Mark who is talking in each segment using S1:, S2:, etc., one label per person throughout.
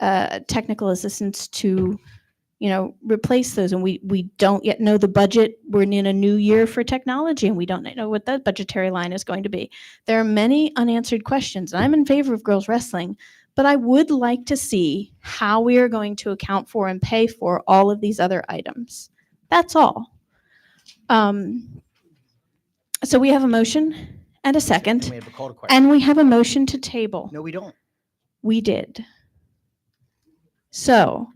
S1: uh, technical assistance to, you know, replace those. And we, we don't yet know the budget. We're in a new year for technology and we don't yet know what that budgetary line is going to be. There are many unanswered questions. and I'm in favor of girls wrestling, but I would like to see how we are going to account for and pay for all of these other items. That's all. Um, so we have a motion and a
S2: And
S1: second,
S2: we have a call to question.
S1: and we have a motion to table.
S2: No, we don't.
S1: We did. So,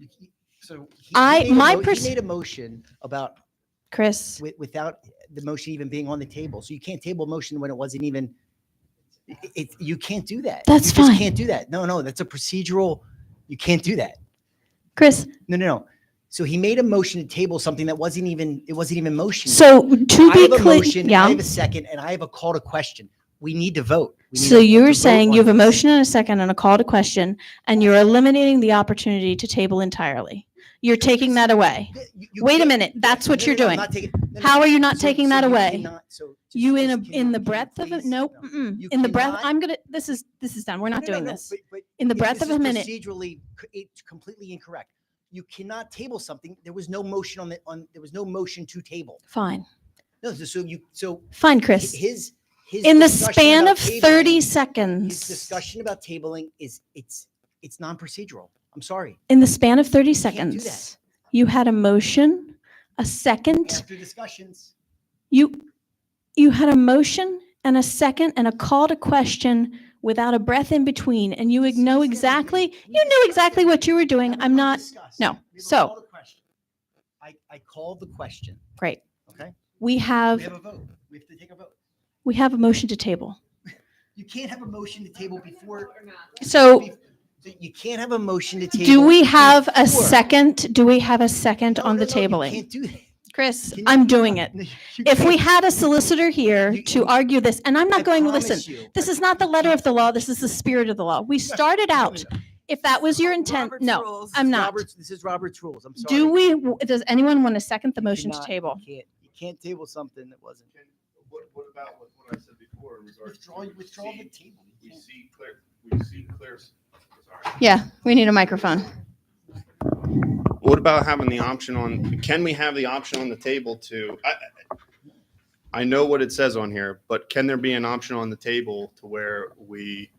S2: So. he- he
S1: I-
S2: made a
S1: my
S2: mo-
S1: pers-
S2: He made a motion about,
S1: Chris,
S2: wi- without the motion even being on the table. So you can't table a motion when it wasn't even, i- it, you can't do that.
S1: That's
S2: You just
S1: fine.
S2: Can't do that. No, no, that's a procedural, you can't do that.
S1: Chris,
S2: No, no, no. So he made a motion to table something that wasn't even, it wasn't even motion.
S1: so to
S2: I
S1: be
S2: have a
S1: clear,
S2: motion, I
S1: yeah.
S2: have a second, and I have a call to question. We need to vote. We need
S1: So
S2: to- to
S1: you're
S2: vote
S1: saying you
S2: on
S1: have a
S2: this.
S1: motion and a second and a call to question, and you're eliminating the opportunity to table entirely. You're taking that away.
S2: Th- you- you
S1: Wait a
S2: can't-
S1: minute, that's what
S2: No,
S1: you're
S2: no, no,
S1: doing.
S2: I'm not taking- no, no,
S1: How are you not
S2: so-
S1: taking
S2: so
S1: that
S2: you
S1: away?
S2: cannot- so just-
S1: You in
S2: just
S1: a, in
S2: can you-
S1: the
S2: can you
S1: breath of, a
S2: please-
S1: no, mm-mm.
S2: You
S1: in the breath,
S2: cannot-
S1: I'm gonna, this is, this is done. We're not
S2: No, no,
S1: doing
S2: no,
S1: this.
S2: but- but
S1: In the
S2: it-
S1: breath
S2: this
S1: of a
S2: is
S1: minute.
S2: Procedurally, c- it's completely incorrect. You cannot table something. There was no motion on the, on, there was no motion to table.
S1: Fine,
S2: No, so- so you, so
S1: fine,
S2: hi-
S1: Chris.
S2: his, his.
S1: In the
S2: discussion
S1: span of
S2: about
S1: 30
S2: tabling- His
S1: seconds,
S2: discussion about tabling is, it's, it's non-procedural. I'm sorry.
S1: in the span of 30
S2: can't do that.
S1: seconds, you had a motion, a second,
S2: After discussions.
S1: You, you had a motion and a second and a call to question without a breath in between, and you would know
S2: Discuss it.
S1: exactly,
S2: We
S1: you knew
S2: discussed
S1: exactly
S2: it.
S1: what you were
S2: Now
S1: doing.
S2: we
S1: I'm
S2: don't
S1: not,
S2: discuss.
S1: no.
S2: We have a
S1: So-
S2: call to question. I, I called the question,
S1: great.
S2: okay?
S1: We
S2: We have
S1: have,
S2: a vote. We have to take a vote.
S1: we have a motion to table.
S2: You can't have a motion to table before.
S1: So
S2: bef- You can't have a motion to table.
S1: do we have a
S2: before-
S1: second, do we have a second
S2: No,
S1: on
S2: no,
S1: the
S2: no, you
S1: tabling?
S2: Can't do that.
S1: Chris,
S2: Can you-
S1: I'm doing it.
S2: No, you
S1: If we
S2: can't.
S1: had a solicitor here
S2: You-
S1: to
S2: you-
S1: argue this, and I'm
S2: I
S1: not going,
S2: promise
S1: listen,
S2: you,
S1: this
S2: I-
S1: is not the letter of the law, this is the spirit of the law. We started
S2: No, no,
S1: out,
S2: no.
S1: if that was your intent,
S2: Robert's
S1: no,
S2: rules.
S1: I'm
S2: It's
S1: not.
S2: Robert's- This is Robert's rules. I'm sorry.
S1: Do we, w- does anyone want to second the
S2: You
S1: motion to
S2: cannot- you
S1: table?
S2: can't- You can't table something that wasn't.
S3: Can- What, what about what, what I said before in regards to?
S2: Withdraw,
S3: we
S2: withdraw the
S3: see-
S2: table.
S3: We
S2: You can't.
S3: see clear, we see clear, sorry.
S1: Yeah, we need a microphone.
S4: What about having the option on, can we have the option on the table to, I, I know what it says on here, but can there be an option on the table to where we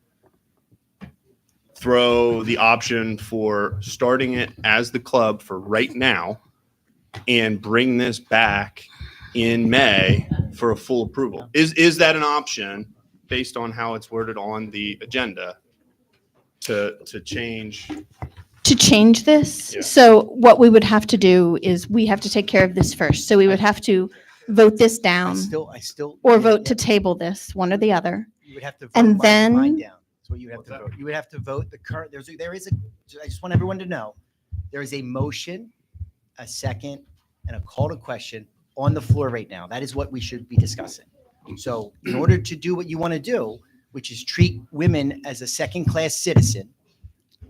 S4: throw the option for starting it as the club for right now and bring this back in May for a full approval? Is, is that an option based on how it's worded on the agenda to, to change?
S1: To change this,
S4: Yeah.
S1: so what we would have to do is we have to take care of this first. So we would have to vote this
S2: I
S1: down
S2: still, I still.
S1: Um, or
S2: yeah,
S1: vote to
S2: yeah.
S1: table this, one or the other.
S2: You would have to. vote
S1: And
S2: mine-
S1: then-
S2: mine down. That's what you would have
S3: What's
S2: to
S3: that?
S2: vote. You would have to vote the current, there's, a- there is a, I just want everyone to know, there is a motion, a second, and a call to question on the floor right now. That is what we should be discussing. So in order to do what you want to do, which is treat women as a second-class citizen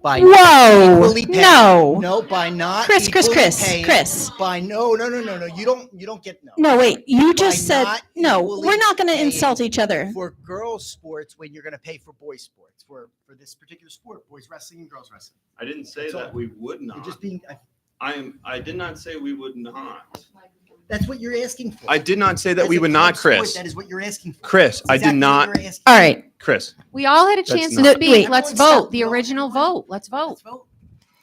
S2: by. not
S1: Whoa,
S2: equally paying-
S1: no.
S2: No, by not.
S1: Chris, Chris,
S2: equally
S1: Chris,
S2: paying-
S1: Chris.
S2: By, no, no, no, no, no, you don't, you don't get, no.
S1: No, wait, you just
S2: By
S1: said,
S2: not
S1: no,
S2: equally
S1: we're not going to
S2: paying
S1: insult each other.
S2: for girls sports when you're going to pay for boys sports for for this particular sport boys wrestling and girls wrestling
S4: I didn't say
S2: That's all.
S4: that we would not.
S2: you're just being I-
S4: I am. I did not say we would not.
S2: that's what you're asking for
S4: I did not say that
S2: As
S4: we
S2: a
S4: would
S2: club
S4: not,
S2: sport,
S4: Chris.
S2: that is what you're asking for
S4: Chris,
S2: That's
S4: I do
S2: exactly what
S4: not.
S2: you're asking
S1: All
S2: for.
S1: right,
S4: Chance
S5: We all had a
S4: That's
S5: chance
S4: not-
S5: to
S1: No, wait.
S5: speak. Let's
S2: Everyone
S5: vote.
S2: stop.
S5: The
S2: No,
S5: original
S2: everyone.
S5: vote. Let's vote.
S2: let's vote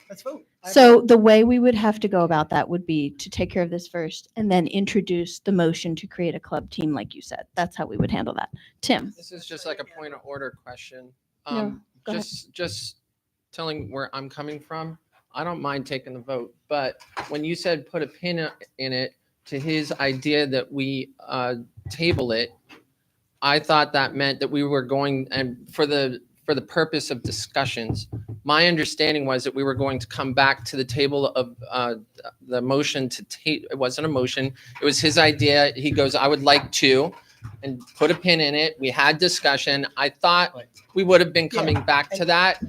S2: let's vote I-
S1: so the way we would have to go about that would be to take care of this first and then introduce the motion to create a club team, like you said. That's how we would handle that. Tim?
S6: This is just like a point of order question.
S1: No,
S6: Um,
S1: go ahead.
S6: just, just telling where I'm coming from. I don't mind taking the vote, but when you said put a pin i- in it to his idea that we, uh, table it, I thought that meant that we were going and for the, for the purpose of discussions. My understanding was that we were going to come back to the table of, uh, the motion to ta, it wasn't a motion. It was his idea. He goes, I would like to, and put a pin in it. We had discussion. I thought
S2: Right.
S6: we would have been
S2: Yeah,
S6: coming back to that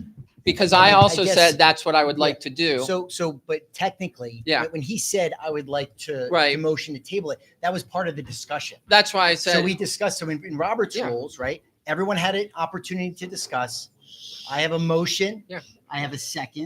S6: because
S2: I
S6: I
S2: mean, I
S6: also
S2: guess-
S6: said that's what I would
S2: yeah.
S6: like to do.
S2: so so but technically
S6: Yeah.
S2: when he said i would like to
S6: Right.
S2: the motion to table it that was part of the discussion
S6: That's why I
S2: so
S6: said,
S2: we discussed so in, in robert's
S6: Yeah.
S2: rules right everyone had an opportunity to discuss i have a motion
S6: Yeah.
S2: i have a second